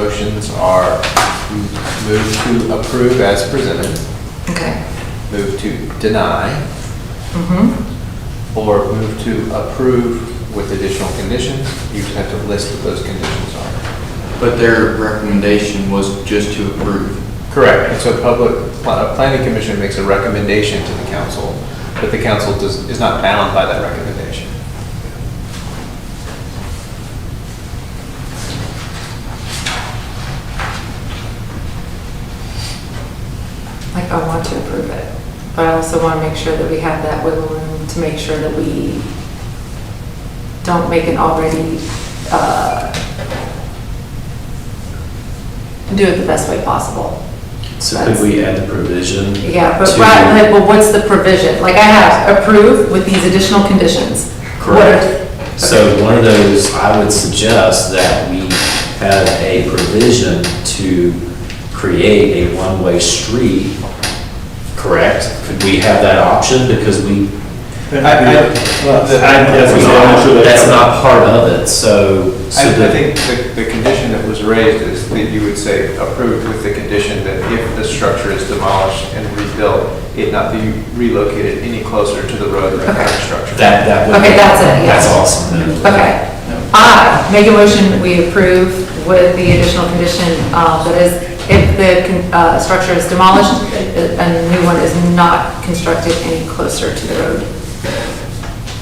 motions are move to approve as presented, Okay. move to deny, Mm-hmm. or move to approve with additional conditions. You just have to list what those conditions are. But their recommendation was just to approve. Correct. And so public, pla- planning commission makes a recommendation to the council, but the council does, is not bound by that recommendation. Like, I want to approve it, but I also want to make sure that we have that wiggle room to make sure that we don't make an already, uh, do it the best way possible. So could we add the provision? Yeah, but to- right, like, well, what's the provision? Like, I have approved with these additional conditions. What are- Correct. So one of those, I would suggest that we have a provision to create a one-way street, correct? Could we have that option? Because we, I- I- the- that's not, that's not part of it, so. so I, I the- think the, the condition that was raised is that you would say approved with the condition that if the structure is demolished and rebuilt, it not be relocated any closer to the road than the current structure. That, that would. Okay, be- that's it, yeah. That's awesome. then. Okay. No. I make a motion that we approve with the additional condition uh, that is, if the con- uh, structure is demolished, uh, a new one is not constructed any closer to the road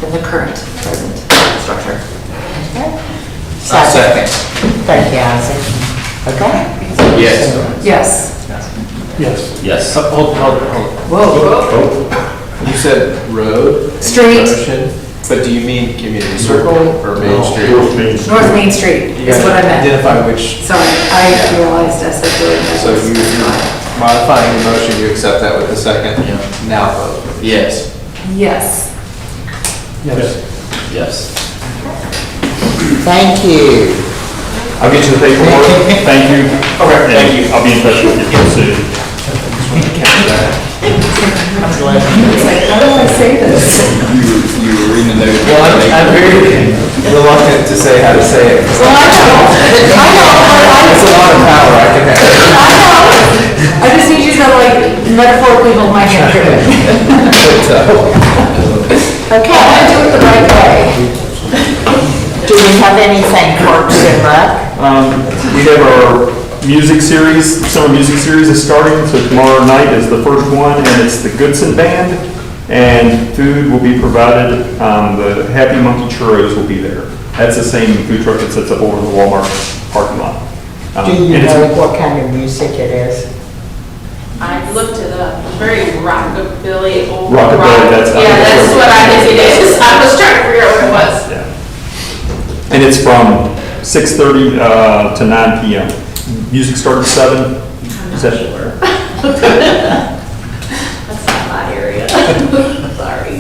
than the current present structure. I'll second. Thank you, Isaac. Okay. Yes. Yes. Yes. Yes. Uh, Hold, hold, hold. Whoa. You said road? and Street. motion, But do you mean community circle or main street? North Main Street You is what I gotta meant. Identify which, Sorry, I realized I said the road. so you- you're modifying the motion, you accept that with the second? Yeah. Now vote. Yes. Yes. Yes. Yes. Thank you. I'll get you the paperwork. Thank you. Okay, thank you. I'll be in touch with you soon. It's like, how do I say this? You were reading the note. Well, I'm- I'm very reluctant to say how to say it, because Well, I know, I know, but I- it's a lot of power I can have. I know. I just need you to like metaphorically hold my hand through it. I Okay. do it the right way. Do we have anything for Rec? Um, we have our music series, summer music series is starting, so tomorrow night is the first one, and it's the Goodson Band. And food will be provided, um, the Happy Monkey Churros will be there. That's the same food truck that sets up over in the Walmart parking lot. Um, Do you and it's- know what kind of music it is? I looked it up, very rockabilly, old rock. Rockabilly, that's- I Yeah, think that's that's what- what I think it is. I was trying to figure out what it was. Yeah. And it's from 6:30 uh, to 9 PM. Music starts at 7. Is that where? That's not my area. Sorry.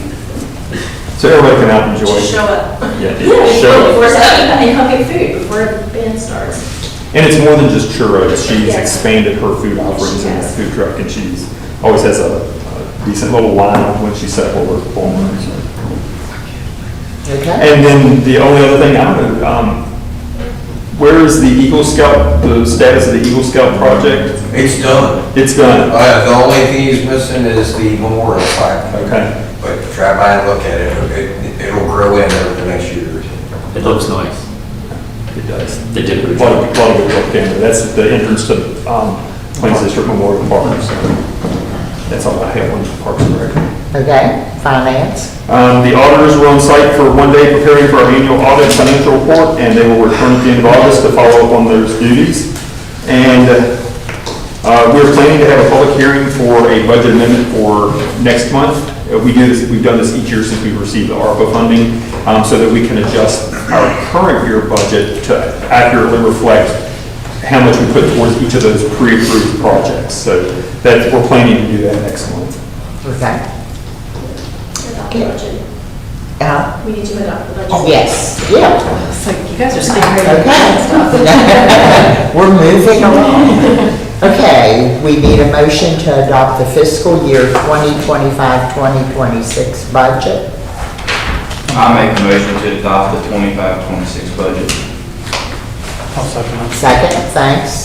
So everybody can out and enjoy. Just show up. Yeah, Yeah, just show Before up. seven, and you'll get food before the band starts. And it's more than just churros. She's Yeah. expanded her food offerings in the Yes. food truck, and she's, always has a a decent little lineup when she set up her performance. Okay. And then the only other thing, I don't know, um, where is the Eagle Scout, the status of the Eagle Scout project? It's done. It's done. Uh, the only thing he's missing is the memorial plaque. Okay. But try by and look at it, it, it'll grow in over the next year or two. It looks nice. It does. They did a good A job. lot of, a lot of good work down there. That's the entrance to um, Plains District Memorial Park. so That's all I have on Parks and Rec. Okay, finance? Um, The auditors were on site for one day preparing for our annual audit and financial report, and they will return at the end of August to follow up on those duties. And uh, we're planning to have a public hearing for a budget amendment for next month. Uh, We do this, we've done this each year since we received the ARPA funding, um, so that we can adjust our current year budget to accurately reflect how much we put towards each of those pre-approved projects. So that, we're planning to do that next month. Okay. budget. Uh, We need to adopt the budget. Yes, yeah, It's like, you guys are scared. okay. We're moving along. Okay, we need a motion to adopt the fiscal year 2025-2026 budget. I make a motion to adopt the 25-26 budget. Second, thanks.